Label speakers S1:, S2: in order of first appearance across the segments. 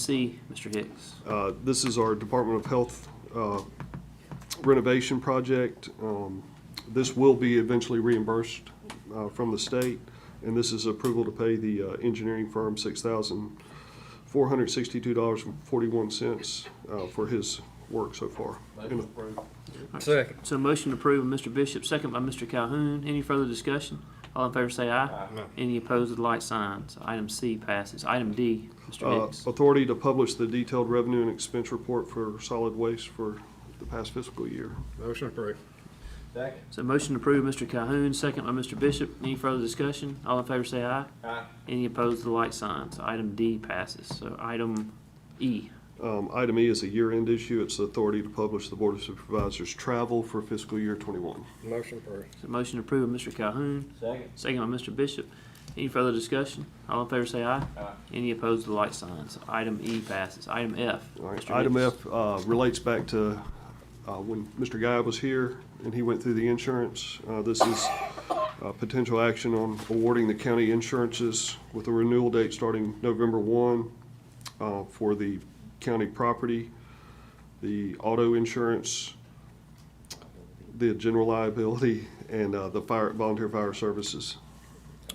S1: C, Mr. Hicks.
S2: Uh, This is our Department of Health uh, renovation project. Um, This will be eventually reimbursed uh, from the state, and this is approval to pay the uh, engineering firm $6,462.41 uh, for his work so far. And, uh,
S3: Second.
S1: So motion approved by Mr. Bishop, second by Mr. Calhoun. Any further discussion? All in favor say aye.
S3: No.
S1: Any opposed with light signs. Item C passes. Item D, Mr.
S2: uh,
S1: Hicks.
S2: Authority to publish the detailed revenue and expense report for solid waste for the past fiscal year.
S3: Motion approved. Second.
S1: So motion approved, Mr. Calhoun, second by Mr. Bishop. Any further discussion? All in favor say aye.
S3: Aye.
S4: Ah,
S1: Any opposed with light signs. Item D passes. So item E.
S2: Um, Item E is a year-end issue. It's the authority to publish the Board of Supervisors' travel for fiscal year '21.
S3: Motion approved.
S1: So motion approved by Mr. Calhoun,
S3: Second.
S1: second by Mr. Bishop. Any further discussion? All in favor say aye.
S3: Aye.
S1: Any opposed with light signs. Item E passes. Item F.
S2: All right,
S1: Mr.
S2: Item
S1: Hicks.
S2: F uh, relates back to uh, when Mr. Guy was here and he went through the insurance. Uh, This is uh, potential action on awarding the county insurances with a renewal date starting November 1 uh, for the county property, the auto insurance, the general liability, and uh, the fire, volunteer fire services.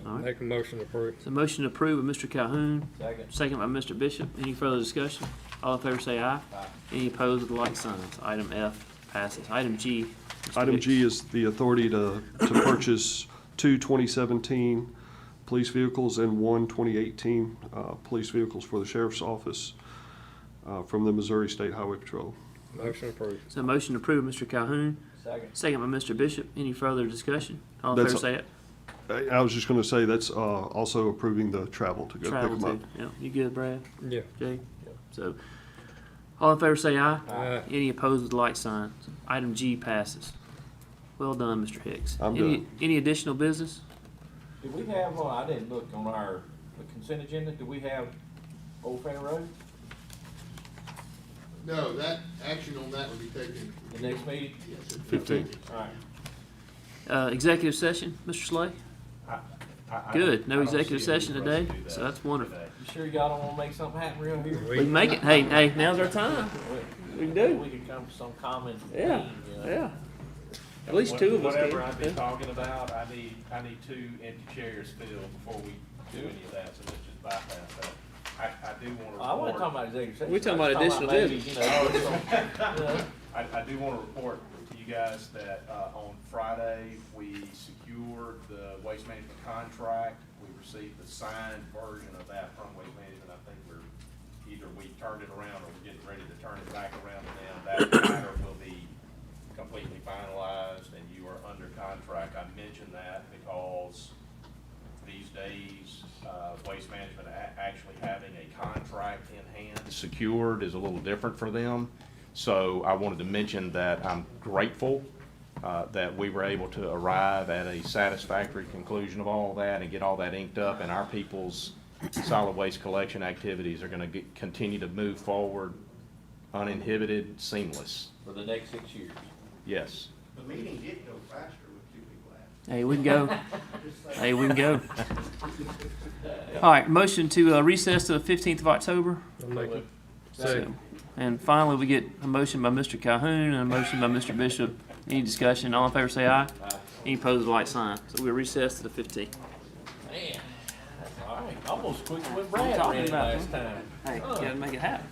S1: All right.
S3: Make a motion approved.
S1: So motion approved by Mr. Calhoun,
S3: Second.
S1: second by Mr. Bishop. Any further discussion? All in favor say aye.
S3: Aye.
S1: Any opposed with like signs. Item F passes. Item G. Mr.
S2: Item
S1: Hicks.
S2: G is the authority to, to purchase two 2017 police vehicles and one 2018 uh, police vehicles for the sheriff's office uh, from the Missouri State Highway Patrol.
S3: Motion approved.
S1: So motion approved by Mr. Calhoun,
S3: Second.
S1: second by Mr. Bishop. Any further discussion? All in favor
S2: That's-
S1: say aye.
S2: I I was just going to say, that's uh, also approving the travel to go pick
S1: Travel
S2: them up.
S1: too. Yeah, you good, Brad?
S3: Yeah.
S1: Jay? So, all in favor say aye.
S3: Aye.
S1: Any opposed with like signs. Item G passes. Well done, Mr. Hicks.
S2: I'm
S1: Any-
S2: done.
S1: Any additional business?
S4: Do we have, uh, I didn't look on our consent agenda, do we have Old Fair Road,
S5: No, that, action on that would be taken.
S4: the next meeting?
S5: Yes, it-
S1: Fifteen.
S4: Alright.
S1: Uh, executive session, Mr. Slay? Good, no executive session today, so that's wonderful.
S4: You sure y'all don't wanna make something happen real here?
S1: We can make it, hey, hey, now's our time. We can do.
S4: We could come to some common
S1: Yeah,
S4: theme, you know?
S1: yeah. At least two of us can.
S6: Whatever I've
S1: yeah.
S6: been talking about, I need, I need two empty chairs filled before we do any of that, so let's just bypass that. I, I do wanna report.
S4: I wasn't talking about executive session.
S1: We talking
S4: I was
S1: about additional
S4: maybe, you know, some- you know,
S6: I, I do want to report to you guys that, uh, on Friday, we secured the waste management contract. We received the signed version of that from waste management. I think we're, either we turned it around or we're getting ready to turn it back around to them. That matter will be completely finalized and you are under contract. I mention that because these days, uh, Waste Management a- actually having a contract in hand. Secured is a little different for them. So I wanted to mention that I'm grateful uh, that we were able to arrive at a satisfactory conclusion of all that and get all that inked up. And our people's solid waste collection activities are going to continue to move forward uninhibited, seamless.
S4: For the next six years.
S6: Yes.
S7: The meeting did go faster with two people out.
S1: Hey, we can go.
S7: Just saying.
S1: Hey, we can go. All right, motion to uh, recess to the fifteenth of October.
S3: I'll make it.
S1: So- And finally, we get a motion by Mr. Calhoun and a motion by Mr. Bishop. Any discussion? All in favor, say aye. Any opposed, like sign. So we recess to the fifteenth.
S4: Man, that's alright, almost quick with Brad
S1: talking
S4: ran
S1: about
S4: last time.
S1: Hey, gotta make it happen.